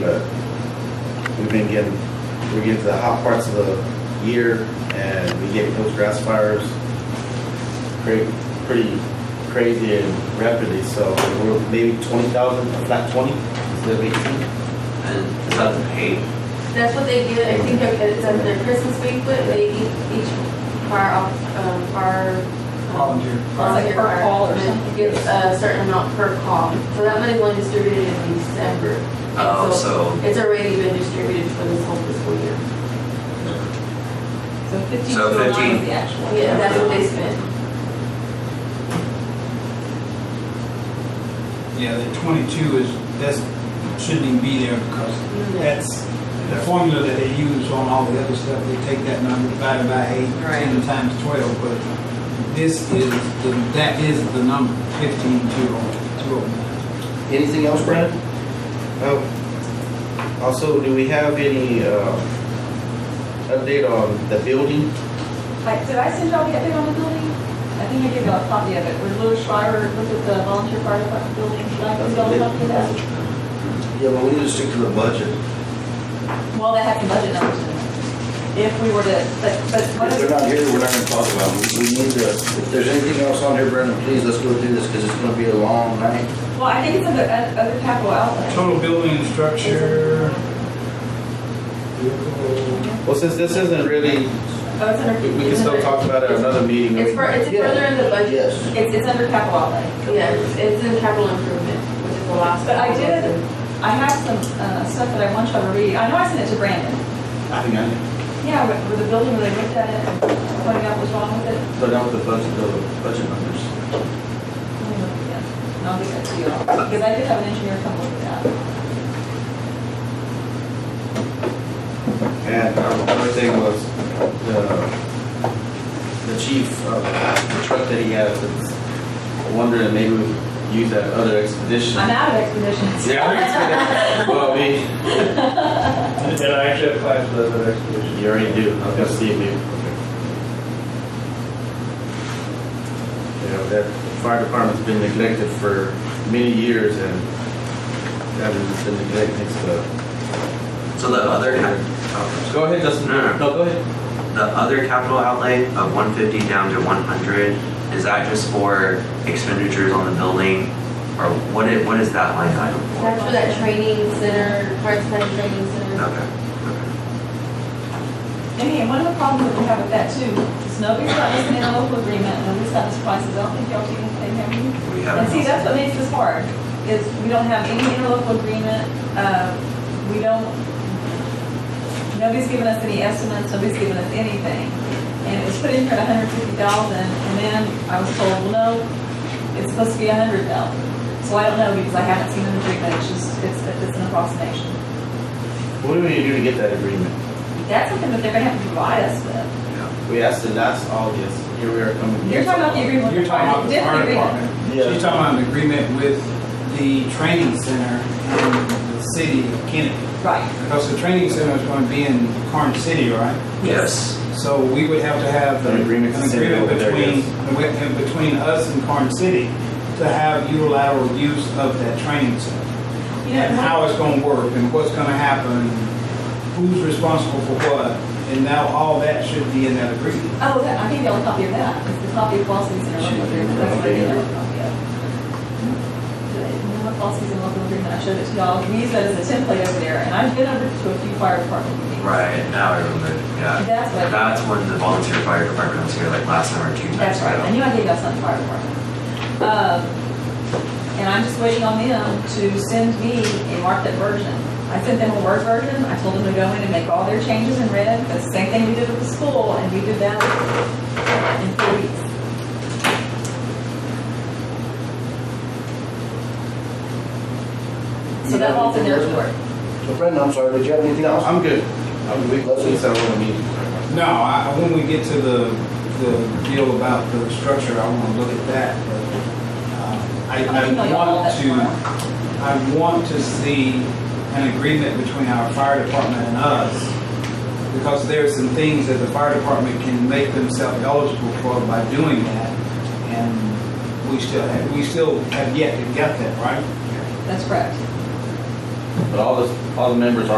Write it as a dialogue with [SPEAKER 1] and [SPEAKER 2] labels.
[SPEAKER 1] but we've been getting, we're getting to the hot parts of the year and we get those grass fires pretty, pretty crazy and rapidly, so we're maybe twenty thousand, a flat twenty, instead of eighteen.
[SPEAKER 2] And it's not paid.
[SPEAKER 3] That's what they do, I think they're- it's under their Christmas banquet, they eat each fire off, um, fire.
[SPEAKER 4] Volunteer.
[SPEAKER 3] Volunteer
[SPEAKER 5] Per
[SPEAKER 3] fire.
[SPEAKER 5] call or
[SPEAKER 3] And
[SPEAKER 5] something.
[SPEAKER 3] Gets a certain amount per call, so that money's only distributed in December. And
[SPEAKER 2] Oh, so,
[SPEAKER 3] It's already been distributed for this whole fiscal year.
[SPEAKER 5] So fifteen
[SPEAKER 2] So
[SPEAKER 5] two oh nine
[SPEAKER 2] 15.
[SPEAKER 5] is the actual.
[SPEAKER 3] Yeah, that's what they spent.
[SPEAKER 4] Yeah, the twenty-two is, that's, shouldn't even be there because that's the formula that they use on all the other stuff. They take that number divided by eight,
[SPEAKER 5] Right.
[SPEAKER 4] ten times twelve, but this is, the that is the number, fifteen two oh, two oh nine.
[SPEAKER 1] Anything else, Brandon? Oh, also, do we have any, uh, update on the building?
[SPEAKER 5] Like, did I send y'all the update on the building? I think I gave y'all a copy of it, where Louis Schreiber looked at the volunteer fire department building, should I give y'all a copy of that?
[SPEAKER 6] Yeah, but we need to stick to the budget.
[SPEAKER 5] Well, they have the budget numbers in it. If we were to, but, but what
[SPEAKER 6] If
[SPEAKER 5] is?
[SPEAKER 6] they're not here, we're not gonna talk about them. We need to, if there's anything else on here, Brandon, please, let's go through this, because it's gonna be a long night.
[SPEAKER 5] Well, I think it's under, uh, under capital outlay.
[SPEAKER 4] Total building and structure.
[SPEAKER 1] Well, since this isn't really,
[SPEAKER 5] Oh, it's under.
[SPEAKER 1] we we can still talk about it at another meeting.
[SPEAKER 3] It's for, it's further in the budget,
[SPEAKER 6] Yes.
[SPEAKER 5] It's, it's under capital outlay.
[SPEAKER 3] yeah, it's- it's in capital improvement, which is the last.
[SPEAKER 5] But I
[SPEAKER 3] one.
[SPEAKER 5] did- I have some uh, stuff that I want y'all to read. I know I sent it to Brandon.
[SPEAKER 1] I think I need
[SPEAKER 5] Yeah, but for the building where they looked at it and pointed out what's wrong with it.
[SPEAKER 1] to put out the budget, the budget numbers.
[SPEAKER 5] Yeah, And I'll get that to you all. Because I did have an engineer come look at that.
[SPEAKER 1] And um, another thing was the, the chief, uh, the truck that he has, that's wondering if maybe we could use that other expedition.
[SPEAKER 5] I'm out of expeditions.
[SPEAKER 1] Yeah, other expedition. well, I mean,
[SPEAKER 7] And I actually applied for the expedition.
[SPEAKER 1] you already do. I was gonna see if you. You know, that fire department's been neglected for many years and that's been neglected, so.
[SPEAKER 2] so the other, cap- oh,
[SPEAKER 1] Go ahead, Justin.
[SPEAKER 2] No, no, no.
[SPEAKER 1] No, go ahead.
[SPEAKER 2] the other capital outlay of one fifty down to one hundred, is that just for expenditures on the building? Or what is, what is that line item
[SPEAKER 3] That's for
[SPEAKER 2] for?
[SPEAKER 3] that training center, part-time training center.
[SPEAKER 2] Okay,
[SPEAKER 5] Amy, and one of the problems that we have with that too, is nobody's got this interlocal agreement, nobody's got this prices. I don't think y'all do anything, have you?
[SPEAKER 2] okay. We
[SPEAKER 5] And see,
[SPEAKER 2] have,
[SPEAKER 5] that's what makes this hard, is we don't have any interlocal agreement, uh, we don't, nobody's given us any estimates, nobody's given us anything. And it was put in here at a hundred fifty thousand, and then I was told, well, no, it's supposed to be a hundred thousand. So I don't know, because I haven't seen an agreement, it's just, it's, it's an approximation.
[SPEAKER 1] What do we do to get that agreement?
[SPEAKER 5] That's something that they're gonna have to provide us with.
[SPEAKER 1] We asked it last August, here we are coming.
[SPEAKER 5] You're talking about the agreement with
[SPEAKER 4] You're
[SPEAKER 5] the
[SPEAKER 4] talking about
[SPEAKER 5] private, different
[SPEAKER 4] the fire
[SPEAKER 5] agreement.
[SPEAKER 4] department.
[SPEAKER 1] Yeah.
[SPEAKER 4] She's talking about an agreement with the training center and the city of Kennedy.
[SPEAKER 5] Right,
[SPEAKER 4] Because the training center is going to be in Karn City, right?
[SPEAKER 2] yes.
[SPEAKER 4] So we would have to have
[SPEAKER 1] An agreement to
[SPEAKER 4] an
[SPEAKER 1] send it
[SPEAKER 4] agreement
[SPEAKER 1] over there,
[SPEAKER 4] between,
[SPEAKER 1] yes.
[SPEAKER 4] an agreement between us and Karn City to have unilateral use of that training center.
[SPEAKER 5] you know,
[SPEAKER 4] And
[SPEAKER 5] one-
[SPEAKER 4] how it's going to work and what's going to happen, who's responsible for what. And now all that should be in that agreement.
[SPEAKER 5] Oh, that, I gave y'all a copy of that, it's the copy of Fall Season and Local Agreement, that's what I gave y'all a copy of. The Fall Season Local Agreement, I showed it to y'all, we use that as a template over there, and I've been over to a few fire department meetings.
[SPEAKER 2] Right, now I remember, yeah.
[SPEAKER 5] That's what-
[SPEAKER 2] That's when the volunteer fire department was here, like last summer, two times ago.
[SPEAKER 5] That's right, I knew I gave y'all something fire department. Um, and I'm just waiting on them to send me a marked up version. I sent them a Word version, I told them to go in and make all their changes in red, the same thing we did with the school, and we did that in four weeks. So that falls in their court.
[SPEAKER 6] So Brandon, I'm sorry, did you have anything else?
[SPEAKER 1] I'm good. I'm good. Let's just have a meeting.
[SPEAKER 4] No, I, when we get to the, the deal about the structure, I want to look at that. but, uh, I,
[SPEAKER 5] I'll email
[SPEAKER 4] I
[SPEAKER 5] y'all all
[SPEAKER 4] want
[SPEAKER 5] that
[SPEAKER 4] to,
[SPEAKER 5] tomorrow.
[SPEAKER 4] I want to see an agreement between our fire department and us. Because there are some things that the fire department can make themselves eligible for by doing that. And we still, have- we still have yet to get that, right?
[SPEAKER 5] That's correct.
[SPEAKER 1] But all the, all the members are.